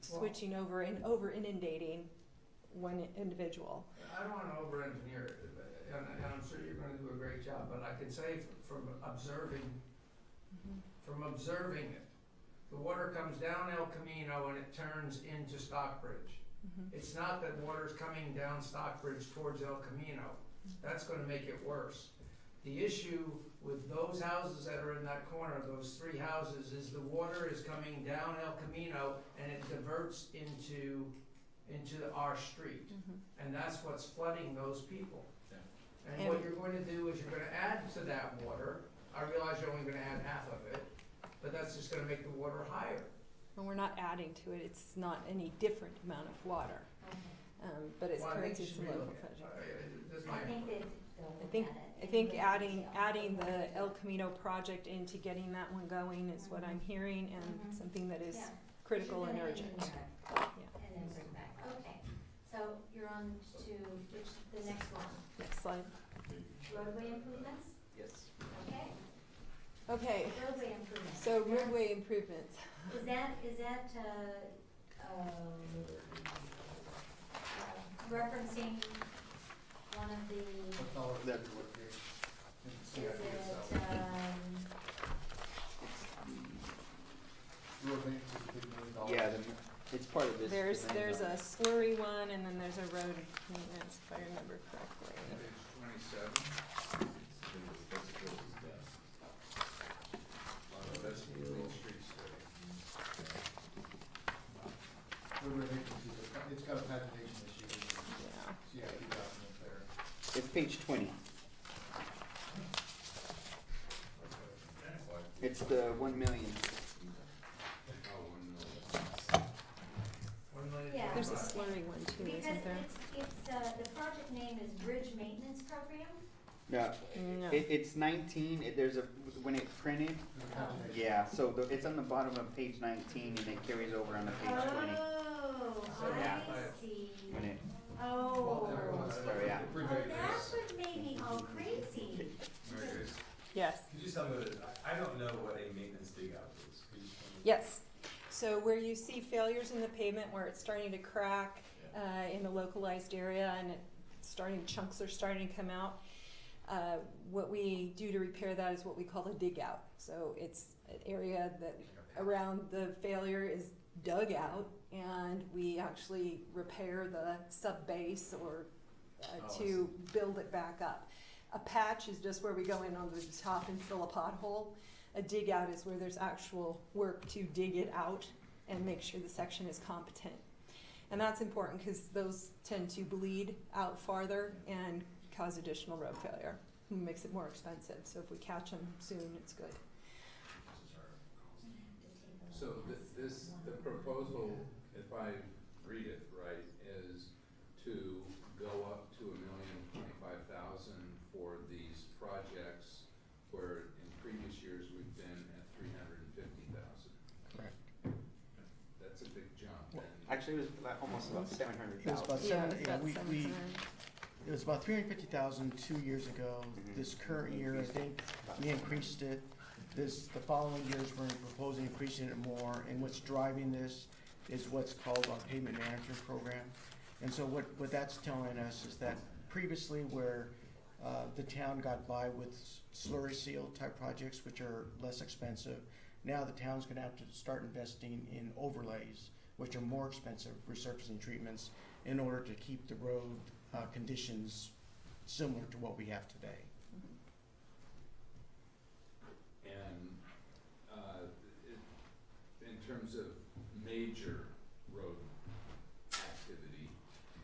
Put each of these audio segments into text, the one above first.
switching over and over inundating one individual. I don't wanna over-engineer it, and, and I'm sure you're gonna do a great job, but I can say f- from observing, Mm-hmm. from observing it, the water comes down El Camino and it turns into Stockbridge. It's not that water's coming down Stockbridge towards El Camino, that's gonna make it worse. The issue with those houses that are in that corner, those three houses, is the water is coming down El Camino and it diverts into, into our street. Mm-hmm. And that's what's flooding those people. Yeah. And what you're going to do is you're gonna add to that water, I realize you're only gonna add half of it, but that's just gonna make the water higher. And we're not adding to it, it's not any different amount of water, um, but it's Well, I think corrected you to should local relook at it. budget. I- I- that's I my- think that I think, I think adding, adding the El Camino project into getting that one going is what I'm hearing Mhm. Mm-hmm. and something that is critical and urgent. Yeah. And then bring back, okay, so you're on to which, the next one, Next slide. roadway improvements, Yes. okay, Okay, roadway improvements. so That's- roadway improvements. Is that, is that, uh, um, uh, referencing one of the That's what you're. Is it, um, Yeah, the- it's part of this. There's, thing, there's uh, a slurry one and then there's a road maintenance, if I remember correctly. twenty-seven. that's the Main Street It's got a pagination issue. Yeah. Yeah, you got it there. It's page twenty. It's the one million. One million Yeah. There's a twenty-five. slurry one too, because isn't there? it's, it's, uh, the project name is Bridge Maintenance Program? No, No. it, it's nineteen, it, there's a, when it's printed, There's a pagination. yeah, so the, it's on the bottom of page nineteen and it carries over on the page twenty. Ah. Oh, So, yeah. I see. When it, Oh. Everyone's- Sorry, yeah. Oh, Pretty big. that's what made me all crazy. Yes. Could you tell me, what- I don't know what a maintenance dig out is. Could you tell me? Yes. So where you see failures in the pavement, where it's starting to crack uh, in a localized area and it starting chunks are starting to come out, uh, what we do to repair that is what we call a dig out. So it's an area that around the failure is dug out and we actually repair the sub base or uh, Oh, I to build it back up. A patch is just where we go in on the top and fill a pothole. A dig out is where there's actual work to dig it out and make sure the section is competent. And that's important because those tend to bleed out farther and cause additional road failure. Makes it more expensive. So if we catch them soon, it's good. So th- this, the proposal, if I read it right, is to go up to a million twenty-five thousand for these projects where in previous years we've been at three hundred and fifty thousand. Correct. That's a big jump Well, and. actually, it was about- almost about seven hundred It was about thousand. Yeah, seven, yeah, that's we, seven we, cents. it was about three hundred fifty thousand two years ago. Mhm. This current year, I think, we increased it. This, the following years, we're proposing increasing it more, and what's driving this is what's called our payment management program. And so what, what that's telling us is that previously where, uh, the town got by with slurry seal type projects, which are less expensive, now the town's gonna have to start investing in overlays, which are more expensive resurfacing treatments, in order to keep the road, uh, conditions similar to what we have today. And, uh, it, in terms of major road activity,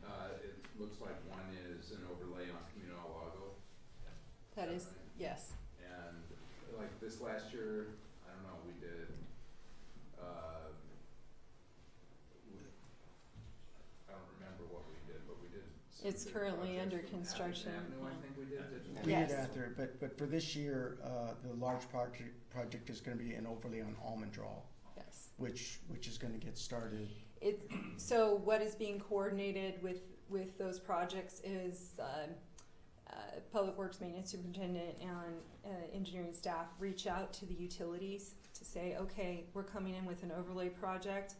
uh, it looks like one is an overlay on Camino del Lago. That is, yes. And like this last year, I don't know, we did, uh, we, I don't remember what we did, but we did. some It's big currently projects under from Atherton construction, Avenue, yeah. I think we did, Yeah. did We Yes. did after, but, but for this year, uh, the large project, project is gonna be an overlay on Almond Draw, Yes. which, which is gonna get started. It's, so what is being coordinated with, with those projects is, um, uh, Public Works Maintenance Superintendent and, uh, engineering staff reach out to the utilities to say, okay, we're coming in with an overlay project.